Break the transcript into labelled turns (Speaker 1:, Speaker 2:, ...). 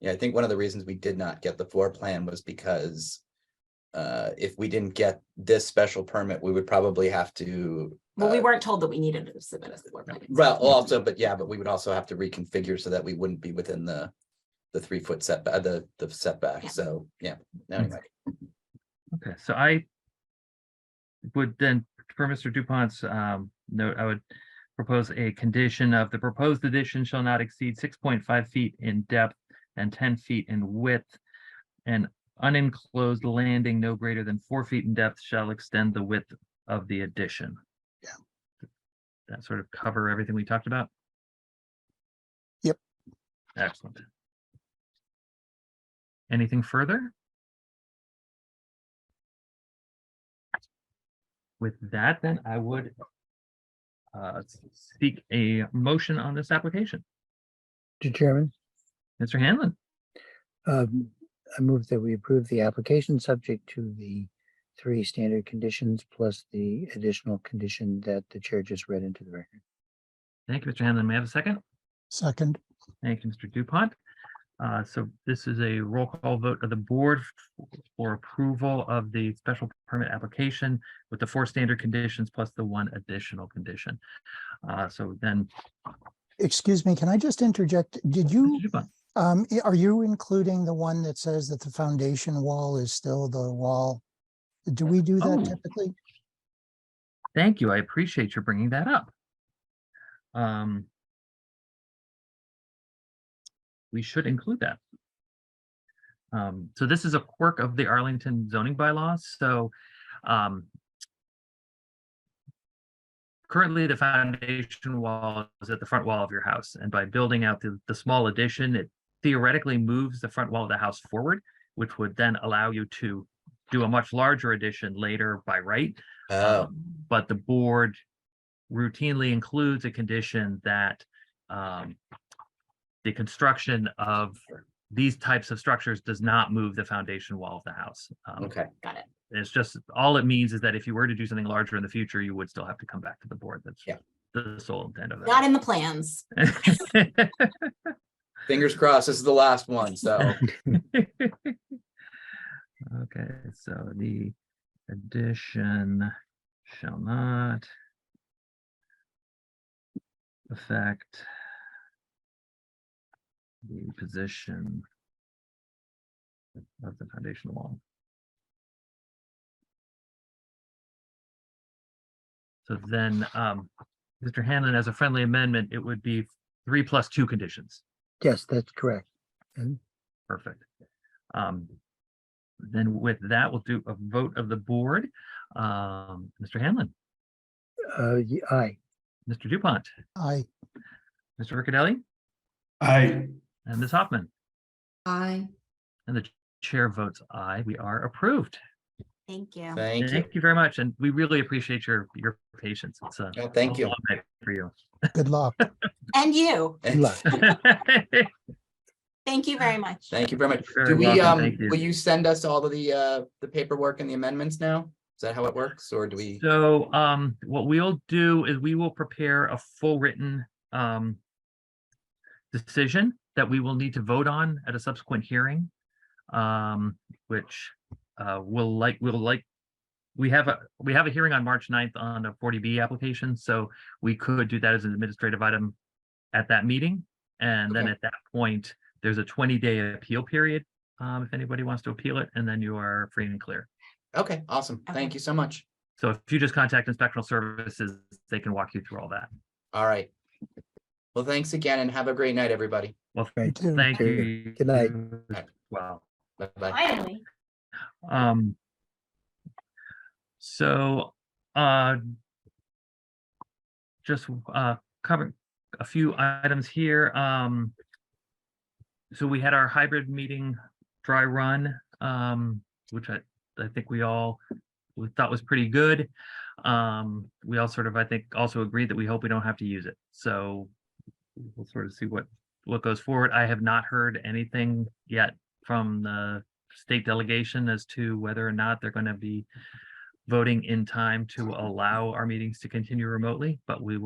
Speaker 1: Yeah, I think one of the reasons we did not get the floor plan was because uh, if we didn't get this special permit, we would probably have to.
Speaker 2: Well, we
Speaker 1: uh,
Speaker 2: weren't told that we needed to submit a floor plan.
Speaker 1: Well, also, but yeah, but we would also have to reconfigure so that we wouldn't be within the, the three foot setback, the, the setback,
Speaker 2: Yeah.
Speaker 1: so, yeah. Anyway,
Speaker 3: Okay, so I would then, for Mr. Dupont's um, note, I would propose a condition of the proposed addition shall not exceed six point five feet in depth and ten feet in width. And unenclosed landing no greater than four feet in depth shall extend the width of the addition.
Speaker 4: Yeah.
Speaker 3: That sort of cover everything we talked about?
Speaker 4: Yep.
Speaker 3: Excellent. Anything further? With that, then I would uh, seek a motion on this application.
Speaker 5: Mr. Chairman,
Speaker 3: Mr. Hanlon,
Speaker 5: um, I move that we approve the application subject to the three standard conditions plus the additional condition that the chair just read into the record.
Speaker 3: thank you, Mr. Hanlon. May I have a second?
Speaker 4: Second,
Speaker 3: Thank you, Mr. Dupont. Uh, So this is a roll call vote of the board for approval of the special permit application with the four standard conditions plus the one additional condition. Uh, So then,
Speaker 4: excuse me, can I just interject? Did you,
Speaker 3: Mr. Dupont,
Speaker 4: um, i- are you including the one that says that the foundation wall is still the wall? Do we do
Speaker 3: Oh.
Speaker 4: that typically?
Speaker 3: thank you. I appreciate you bringing that up. Um, We should include that. Um, So this is a quirk of the Arlington zoning bylaws, so um, currently the foundation wall is at the front wall of your house, and by building out the, the small addition, it theoretically moves the front wall of the house forward, which would then allow you to do a much larger addition later by right.
Speaker 1: oh,
Speaker 3: Um, But the board routinely includes a condition that um, the construction of these types of structures does not move the foundation wall of the house. Um,
Speaker 1: okay,
Speaker 2: Got it.
Speaker 3: It's just, all it means is that if you were to do something larger in the future, you would still have to come back to the board. That's
Speaker 1: Yeah.
Speaker 3: the sole intent of
Speaker 2: Not in the plans.
Speaker 3: that.
Speaker 1: fingers crossed, this is the last one, so,
Speaker 3: Okay, so the addition shall not affect the position of the foundation wall. So then, um, Mr. Hanlon, as a friendly amendment, it would be three plus two conditions.
Speaker 5: Yes, that's correct.
Speaker 3: Perfect. Um, then with that, we'll do a vote of the board. Um, Mr. Hanlon,
Speaker 5: Uh, ye- aye,
Speaker 3: Mr. Dupont,
Speaker 4: I,
Speaker 3: Mr. Riccadelli,
Speaker 6: Aye.
Speaker 3: and Ms. Hoffman,
Speaker 7: Aye.
Speaker 3: and the chair votes aye. We are approved.
Speaker 2: Thank you.
Speaker 1: thank you.
Speaker 3: Thank you very much, and we really appreciate your, your patience. It's a
Speaker 1: Oh, Thank
Speaker 3: a
Speaker 1: you.
Speaker 3: long night For you.
Speaker 4: good luck.
Speaker 2: And you.
Speaker 5: good luck.
Speaker 2: Thank you very much.
Speaker 1: Thank you very much.
Speaker 3: You're
Speaker 1: Do
Speaker 3: very
Speaker 1: we,
Speaker 3: welcome.
Speaker 1: um,
Speaker 3: Thank you.
Speaker 1: will you send us all of the, uh, the paperwork and the amendments now? Is that how it works, or do we?
Speaker 3: So, um, what we'll do is we will prepare a full written, um, decision that we will need to vote on at a subsequent hearing. Um, which, uh, will like, will like, we have a, we have a hearing on March 9th on a forty B application, so we could do that as an administrative item at that meeting. And then
Speaker 1: Okay.
Speaker 3: at that point, there's a twenty day appeal period, um, if anybody wants to appeal it, and then you are free and clear.
Speaker 1: Okay, awesome,
Speaker 2: Okay.
Speaker 1: thank you so much.
Speaker 3: So if you just contact Inspectional Services, they can walk you through all that.
Speaker 1: All right. Well, thanks again and have a great night, everybody.
Speaker 3: Well,
Speaker 5: Right.
Speaker 4: Thank you.
Speaker 3: thank
Speaker 5: Okay.
Speaker 3: you.
Speaker 5: Good night.
Speaker 3: as Well,
Speaker 1: Bye-bye.
Speaker 7: Finally.
Speaker 3: um. So, uh. Just, uh, cover a few items here, um. So we had our hybrid meeting dry run, um, which I, I think we all we thought was pretty good. Um, we all sort of, I think, also agreed that we hope we don't have to use it, so we'll sort of see what, what goes forward. I have not heard anything yet from the state delegation as to whether or not they're going to be voting in time to allow our meetings to continue remotely, but we will